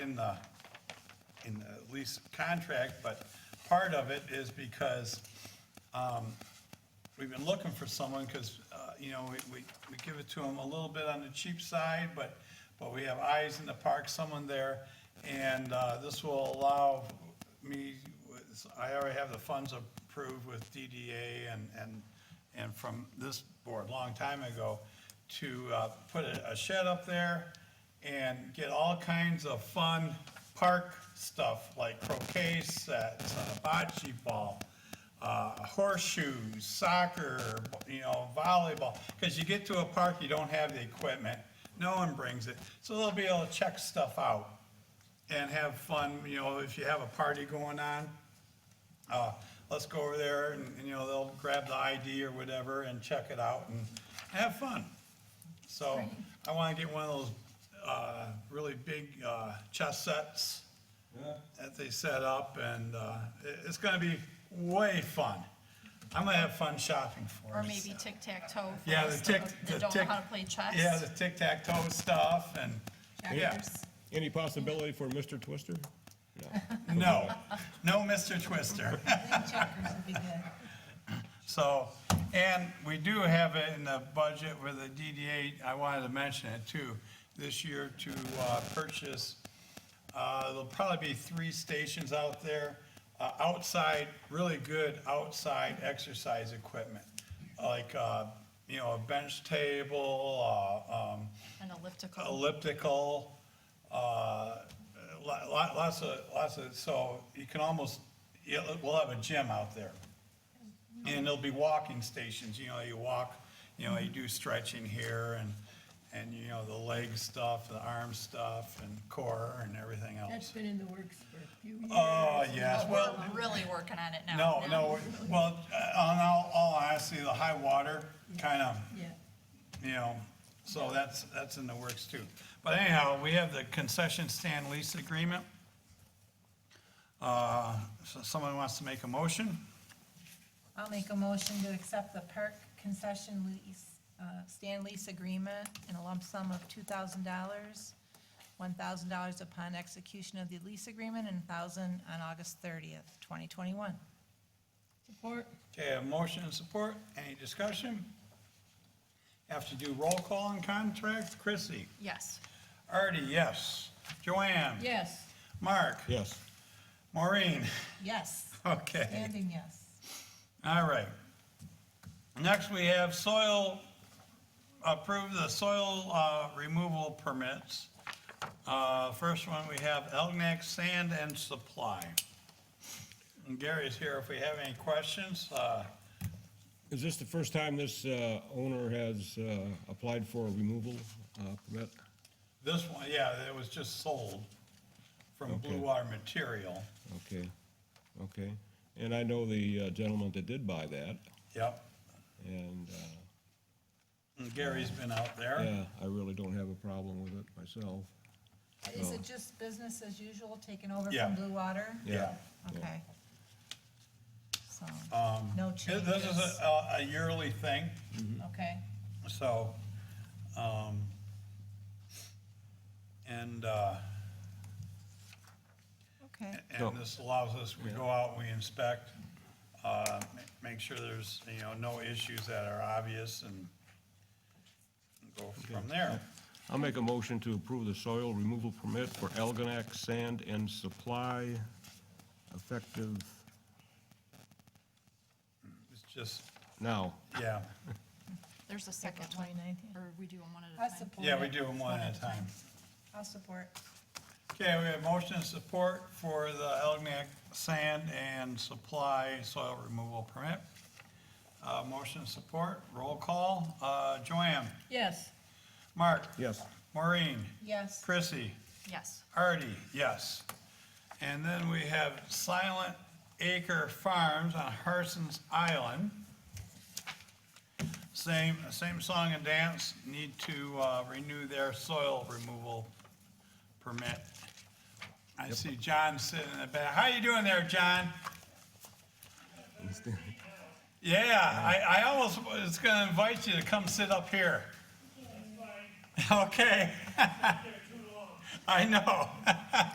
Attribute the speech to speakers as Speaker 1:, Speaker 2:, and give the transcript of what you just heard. Speaker 1: in the, in the lease contract, but part of it is because um, we've been looking for someone, because, you know, we, we we give it to them a little bit on the cheap side, but, but we have eyes in the park, someone there, and uh, this will allow me, with- I already have the funds approved with DDA and, and, and from this board, a long time ago, to uh, put a a shed up there and get all kinds of fun park stuff, like croquet sets, uh, bocce ball, uh, horseshoes, soccer, you know, volleyball, because you get to a park, you don't have the equipment, no one brings it, so they'll be able to check stuff out and have fun, you know, if you have a party going on, uh, let's go over there and, and, you know, they'll grab the ID or whatever and check it out and have fun. So I wanna get one of those, uh, really big, uh, chess sets that they set up and, uh, it, it's gonna be way fun. I'm gonna have fun shopping for
Speaker 2: Or
Speaker 1: us.
Speaker 2: maybe tic-tac-toe. for
Speaker 1: Yeah,
Speaker 2: us
Speaker 1: the
Speaker 2: that
Speaker 1: tic,
Speaker 2: don't-
Speaker 1: the
Speaker 2: That don't
Speaker 1: tic.
Speaker 2: know how to play chess.
Speaker 1: Yeah, the tic-tac-toe stuff and, yeah.
Speaker 2: Checkers.
Speaker 3: Any possibility for Mr. Twister?
Speaker 1: No, no Mr. Twister.
Speaker 4: Checkers would be good.
Speaker 1: So, and we do have it in the budget with the DDA, I wanted to mention it too, this year to uh, purchase, uh, there'll probably be three stations out there, uh, outside, really good outside exercise equipment, like, uh, you know, a bench table, uh, um,
Speaker 2: An elliptical.
Speaker 1: elliptical, uh, lo- lo- lots of, lots of, so you can almost, yeah, we'll have a gym out there. And there'll be walking stations, you know, you walk, you know, you do stretching here and, and, you know, the leg stuff, the arm stuff and core and everything
Speaker 4: That's
Speaker 1: else.
Speaker 4: been in the works for a few years.
Speaker 1: Oh, yes,
Speaker 2: But
Speaker 1: well,
Speaker 2: We're really working on it now.
Speaker 1: no, no, well, uh, on all, all honesty, the high water kind of
Speaker 4: Yeah,
Speaker 1: you know, so that's, that's in the works too. But anyhow, we have the concession stand lease agreement. Uh, So someone wants to make a motion?
Speaker 4: I'll make a motion to accept the park concession lease, uh, stand lease agreement in a lump sum of two thousand dollars, one thousand dollars upon execution of the lease agreement, and thousand on August thirtieth, twenty twenty-one. Support.
Speaker 1: Okay, a motion and support, any discussion? Have to do roll call on contract, Chrissy?
Speaker 2: Yes.
Speaker 1: Artie, yes. Joanne?
Speaker 4: Yes.
Speaker 1: Mark?
Speaker 3: Yes.
Speaker 1: Maureen?
Speaker 4: Yes,
Speaker 1: Okay,
Speaker 4: standing yes.
Speaker 1: all right. Next, we have soil, approve the soil uh, removal permits. Uh, First one, we have Elginak Sand and Supply. And Gary's here if we have any questions. Uh,
Speaker 3: Is this the first time this uh, owner has uh, applied for a removal uh, permit?
Speaker 1: This one, yeah, it was just sold from Blue
Speaker 3: Okay.
Speaker 1: Water Material.
Speaker 3: Okay, okay. And I know the uh, gentleman that did buy that,
Speaker 1: Yep,
Speaker 3: and, uh,
Speaker 1: and Gary's been out there.
Speaker 3: yeah, I really don't have a problem with it myself.
Speaker 4: Is it just business as usual, taken over
Speaker 1: Yeah.
Speaker 4: from Blue Water?
Speaker 1: Yeah.
Speaker 4: Okay. So, no
Speaker 1: This
Speaker 4: changes.
Speaker 1: this is a- a a yearly thing,
Speaker 4: Okay,
Speaker 1: so, um, and, uh,
Speaker 4: okay.
Speaker 1: And this allows us, we go out, we inspect, uh, ma- make sure there's, you know, no issues that are obvious and go from there.
Speaker 3: I'll make a motion to approve the soil removal permit for Algonac Sand and Supply effective
Speaker 1: It's just,
Speaker 3: now.
Speaker 1: yeah,
Speaker 2: There's a second
Speaker 4: April
Speaker 2: one.
Speaker 4: 29th, yeah.
Speaker 2: Or we do them one at a
Speaker 4: I
Speaker 2: time.
Speaker 4: support.
Speaker 1: yeah, we
Speaker 4: it.
Speaker 1: do them one at a time.
Speaker 4: I'll support.
Speaker 1: Okay, we have motion and support for the Elginak Sand and Supply Soil Removal Permit. Uh, Motion and support, roll call. Uh, Joanne,
Speaker 4: Yes.
Speaker 1: Mark,
Speaker 3: Yes.
Speaker 1: Maureen,
Speaker 4: Yes.
Speaker 1: Chrissy,
Speaker 2: Yes.
Speaker 1: Artie, yes. And then we have Silent Acre Farms on Harson's Island. Same, same song and dance, need to uh, renew their soil removal permit. I see John sitting in the back. How you doing there, John? Yeah, I, I almost was gonna invite you to come sit up here. Okay. I know.